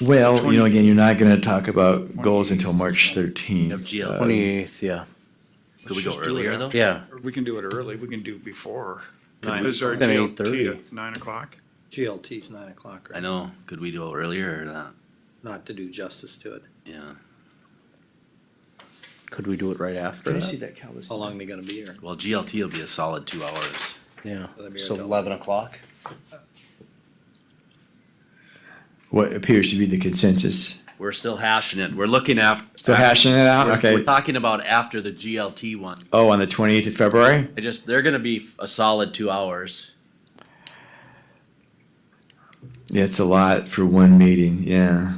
Well, you know, again, you're not gonna talk about goals until March Of thirteenth. uh, GL. Twenty-eighth, yeah, Could we Let's go just do it earlier though? after. yeah. Or We can do it early, we can do before. Nine. Is our Then GLT 8:30. at nine o'clock? GLT's nine o'clock, I right? know. Could we do it earlier or not? Not to do justice to it. Yeah. Could we do it right after that? that cow How long they gonna be here? Well, GLT will be a solid two hours. Yeah, Let me so know. eleven o'clock? What appears to be the consensus. We're still hashing it. We're looking after. Still hashing it out? Uh, We're Okay. talking about after the GLT one. Oh, on the twenty-eighth of February? I just, they're gonna be a solid two hours. Yeah, it's a lot for one meeting, yeah.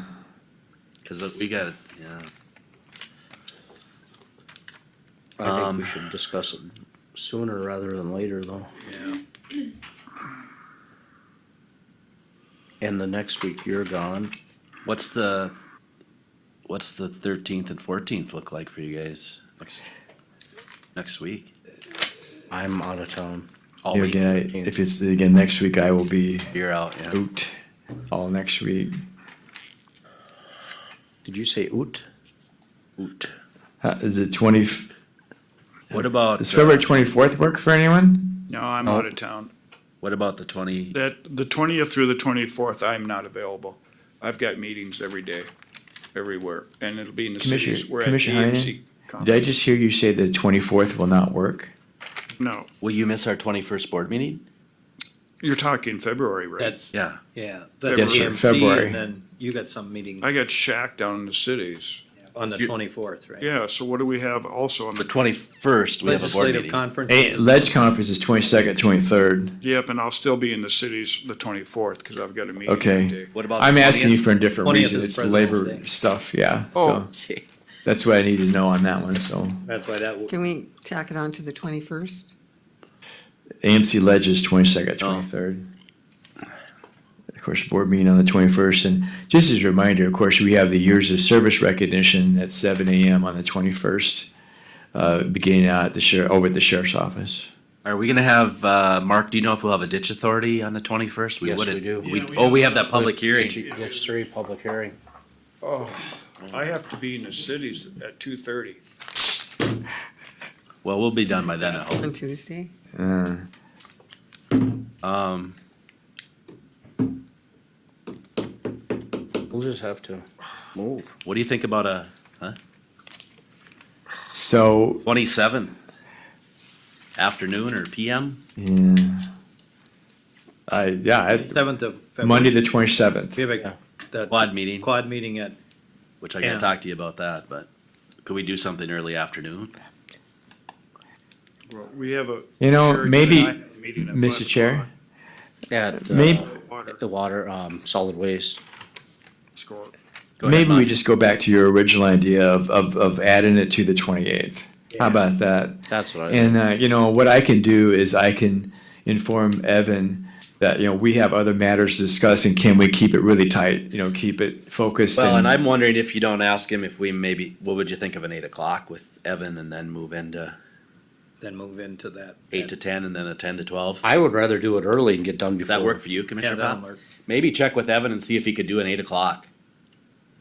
Cause we got, yeah. I think Um, we should discuss it sooner rather than later though. Yeah, And the next week you're gone. What's the, what's the thirteenth and fourteenth look like for you guys next, next week? I'm out of town. All Yeah, week, Again, I- if it's, again, next week I will be you're out, yeah. out all next week. Did you say oot? Oot. Uh, Is it twenty, What about, does uh, February twenty-fourth work for anyone? No, I'm out of town. uh, what about the twenty, That, the twentieth through the twenty-fourth, I'm not available. I've got meetings every day, everywhere, and it'll be in the Commissioner- cities. We're at Commissioner Heinen? DMC Did I conference. just hear you say the twenty-fourth will not work? No, will you miss our twenty-first board meeting? you're talking February, right? that's, Yeah. yeah. Yes, That's sir, February. And then you got some meeting I got shacked down in the cities. on the you- twenty-fourth, right? Yeah, so what do we have also on The the, twenty-first, we have a board Legislative meeting. conference. Eh, Ledge conference is twenty-second, twenty-third. yep, and I'll still be in the cities the twenty-fourth, because I've got a meeting that Okay. day. What about? the I'm asking you 20th? for a different 20th reason. is It's President's labor Day. stuff, yeah. Oh. So that's what I need to know on that one, so. That's why that, w- Can we tack it on to the twenty-first? AMC Ledge is twenty-second, Oh. twenty-third. Of course, board meeting on the twenty-first, and just as a reminder, of course, we have the years of service recognition at seven AM on the twenty-first. Uh, beginning out at the sheriff, over at the sheriff's office. Are we gonna have, uh, Mark, do you know if we'll have a ditch authority on the twenty-first? Yes, we do. Yeah, oh, we have that public hearing. Ditch three, public hearing. I have to be in the cities at two-thirty. Well, we'll be done by then, I hope. On Tuesday? Uh, Um, We'll just have to move. what do you think about a so, twenty-seventh? Afternoon or PM? yeah. I, yeah, I- seventh of February. Monday, the twenty-seventh. We have Yeah. a, Quad that meeting, quad meeting at, which I gotta Yeah. talk to you about that, but could we do something early afternoon? Well, we have a. You know, Sheridan maybe, and I have a meeting at Mr. five Chair, At, Maybe- uh, o'clock. Water the water, um, solid waste. score. Go ahead, maybe we Monty. just go back to your original idea of, of, of adding it to the twenty-eighth. How about that? That's what I. And uh, you know what I can do is I can inform Evan that you know we have other matters to discuss and can we keep it really tight? You know, keep it focused. Well, and I'm wondering if you don't ask him if we maybe, what would you think of an eight o'clock with Evan and then move into then move into that. eight to ten and then a ten to twelve? I would rather do it early and get done Does before. that work for you, Yeah, Commissioner that'll Dodd? work. Maybe check with Evan and see if he could do an eight o'clock.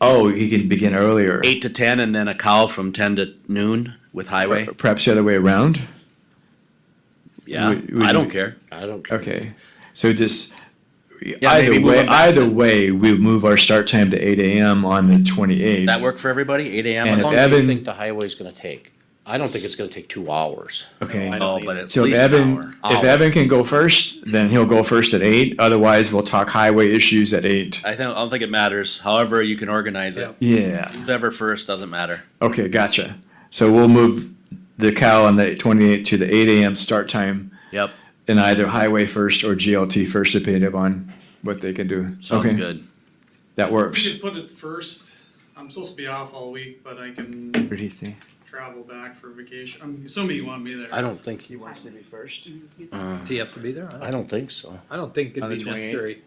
oh, he can begin earlier. Eight to ten and then a cow from ten to noon with highway? Per- Perhaps the other way around. Yeah, Would- would I don't you- care. I don't care. Okay, so just maybe either move way, them back either then. way, we move our start time to eight a.m. on the twenty eighth. That work for everybody, eight AM? And on if How the- long do you Evan- think the highway's gonna take? I don't think it's gonna take two hours. Okay. I don't Oh, either. but at So if least an Evan, hour. if Hour. Evan can go first, then he'll go first at eight. Otherwise, we'll talk highway issues at eight. I think, I don't think it matters. However, you can organize it. Yeah. Whoever first, doesn't matter. Okay, gotcha. So we'll move the cow on the 28 to the 8 a.m. start time Yep, in either highway first or GLT first, depending upon what they can do. sounds okay, good. That We works. could put it first. I'm supposed to be off all week, but I can What do you think? travel back for vacation. I'm assuming you want me there. I don't think, wants to be first. Do you have to be there? I don't- I don't think so. I don't think On it'd the be 28th? necessary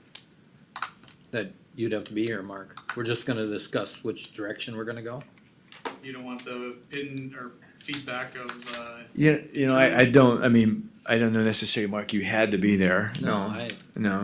that you'd have to be here, Mark. We're just gonna discuss which direction we're gonna go. You don't want the in or feedback of, uh, Yeah, you know, I, I don't, I mean, I don't know necessarily, Mark, you had to be there. No, I, no.